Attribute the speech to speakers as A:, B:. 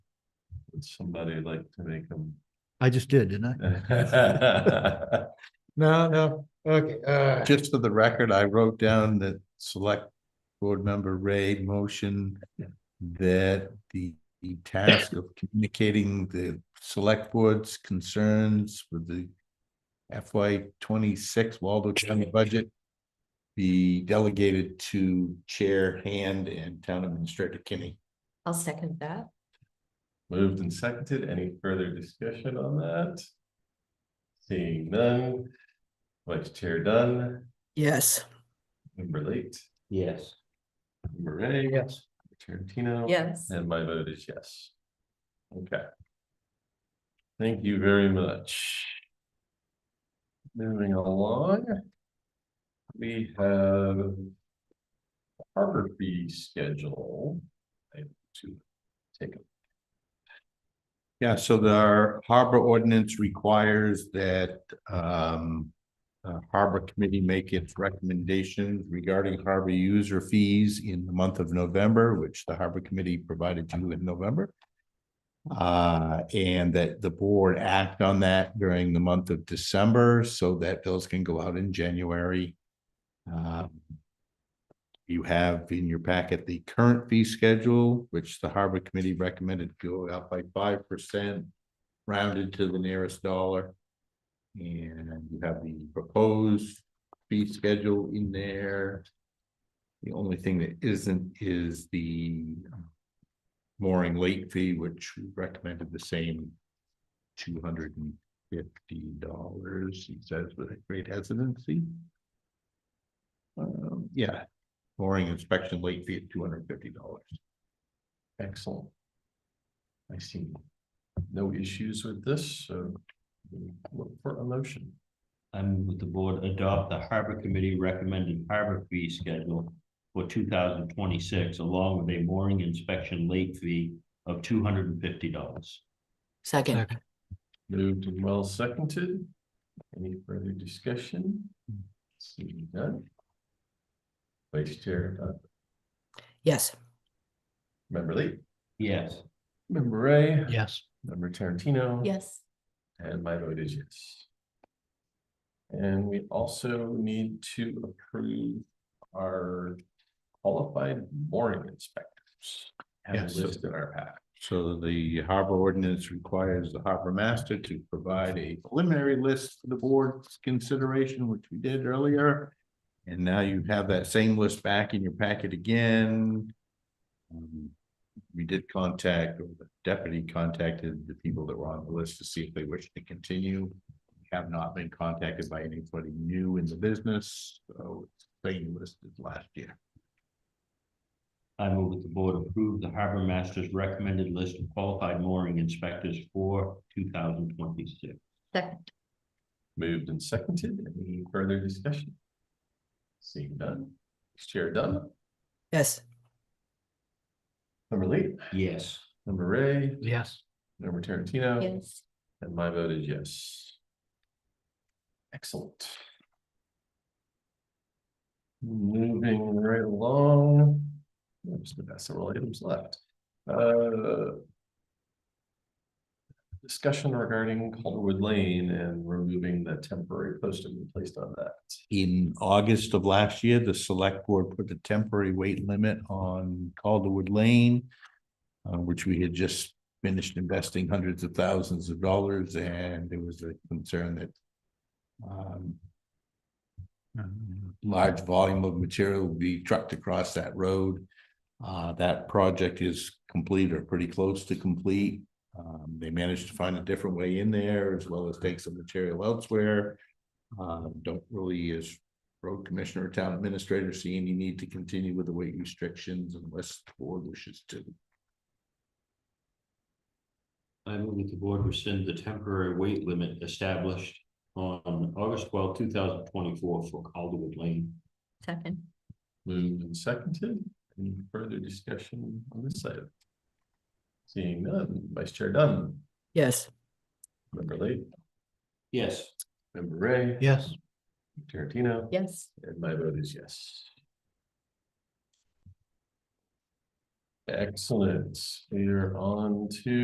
A: Would somebody like to make them?
B: I just did, didn't
C: No, no, okay, uh,
D: Just for the record, I wrote down that select board member Ray motion that the the task of communicating the select board's concerns with the FY twenty-six Waldo County budget be delegated to Chair Hand and Town Administrator Kinney.
E: I'll second that.
A: Moved and seconded. Any further discussion on that? Seeing none. Vice Chair Dunn,
F: Yes.
A: member late,
D: Yes.
A: member Ray.
C: yes,
A: Tarantino.
E: Yes.
A: And my vote is yes. Okay. Thank you very much. Moving along. We have. Harbor fee schedule. I have to take a
D: Yeah, so the our harbor ordinance requires that um. uh, harbor committee make its recommendations regarding harbor user fees in the month of November, which the harbor committee provided you in November. Uh, and that the board act on that during the month of December so that bills can go out in January. Um, You have in your packet the current fee schedule, which the harbor committee recommended go up by five percent rounded to the nearest dollar. And you have the proposed fee schedule in there. The only thing that isn't is the mooring late fee, which we recommended the same two hundred and fifty dollars, he says with a great hesitancy. Um, yeah, mooring inspection late fee at two hundred and fifty dollars.
A: Excellent. I see no issues with this, so we look for a motion.
G: I move that the board adopt the harbor committee recommended harbor fee schedule for two thousand twenty-six, along with a mooring inspection late fee of two hundred and fifty dollars.
F: Second,
B: Second.
A: Moved and well seconded. Any further discussion? Seeing none. Vice Chair, uh,
F: yes.
A: Member Lee,
G: Yes.
A: Member Ray,
B: I? Yes.
A: Member Tarantino.
E: Yes.
A: And my vote is yes. And we also need to approve our qualified mooring inspectors. Have
D: Yes.
A: listed in our pack.
D: So the harbor ordinance requires the harbor master to provide a preliminary list for the board's consideration, which we did earlier. And now you have that same list back in your packet again. Um, We did contact, or the deputy contacted the people that were on the list to see if they wish to continue. We Have not been contacted by anybody new in the business, so it's the same list as last year.
G: I move that the board approve the harbor master's recommended list of qualified mooring inspectors for two thousand twenty-six.
E: Second.
A: Moved and seconded. Any further discussion? Seeing none. Chair Dunn,
F: Yes.
A: member Lee,
G: Yes.
A: member Ray,
B: Yes.
A: member Tarantino.
E: Yes.
A: And my vote is yes. Excellent. Moving right along. I Just gonna have several items left. Uh, Discussion regarding Calderwood Lane and removing the temporary posting we placed on that.
D: in August of last year, the select board put a temporary weight limit on Calderwood Lane. uh, which we had just finished investing hundreds of thousands of dollars and there was a concern that. um, Large volume of material would be trucked across that road. Uh, that project is complete or pretty close to complete. Um, they managed to find a different way in there as well as take some material elsewhere. Uh, don't really as road commissioner, or town administrator, see any need to continue with the weight restrictions unless the board wishes to.
G: I move that the board rescind the temporary weight limit established on August twelfth, two thousand twenty-four for Calderwood Lane.
E: Second.
A: Moved and seconded. Any further discussion on this side? Seeing none, Vice Chair Dunn,
F: Yes.
A: Member Lee,
G: Yes.
A: Member Ray,
B: Yes.
A: Tarantino.
E: Yes.
A: And my vote is yes. Excellent. We are on to